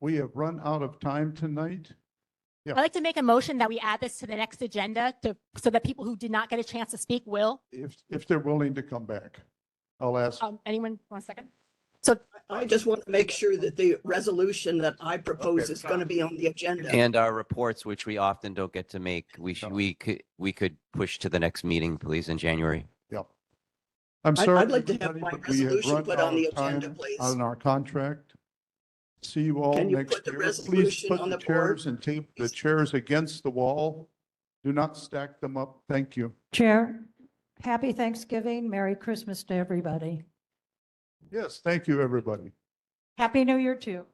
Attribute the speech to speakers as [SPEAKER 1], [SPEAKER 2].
[SPEAKER 1] we have run out of time tonight.
[SPEAKER 2] I'd like to make a motion that we add this to the next agenda to, so that people who did not get a chance to speak will.
[SPEAKER 1] If, if they're willing to come back, I'll ask.
[SPEAKER 2] Um, anyone, one second?
[SPEAKER 3] I just want to make sure that the resolution that I propose is going to be on the agenda.
[SPEAKER 4] And our reports, which we often don't get to make, we should, we could, we could push to the next meeting, please, in January.
[SPEAKER 1] I'm
[SPEAKER 3] I'd-
[SPEAKER 1] sorry.
[SPEAKER 3] I'd like to have
[SPEAKER 1] everybody,
[SPEAKER 3] my
[SPEAKER 1] but we have
[SPEAKER 3] resolution
[SPEAKER 1] run
[SPEAKER 3] put on
[SPEAKER 1] out
[SPEAKER 3] the
[SPEAKER 1] of time
[SPEAKER 3] agenda, please.
[SPEAKER 1] On our contract. See you all
[SPEAKER 3] Can you
[SPEAKER 1] next
[SPEAKER 3] put the
[SPEAKER 1] year. Please
[SPEAKER 3] resolution
[SPEAKER 1] put
[SPEAKER 3] on
[SPEAKER 1] the
[SPEAKER 3] the board?
[SPEAKER 1] chairs and tape the chairs against the wall. Do not stack them up. Thank you.
[SPEAKER 5] Chair, happy Thanksgiving, Merry Christmas to everybody.
[SPEAKER 1] Yes, thank you, everybody.
[SPEAKER 5] Happy New Year too.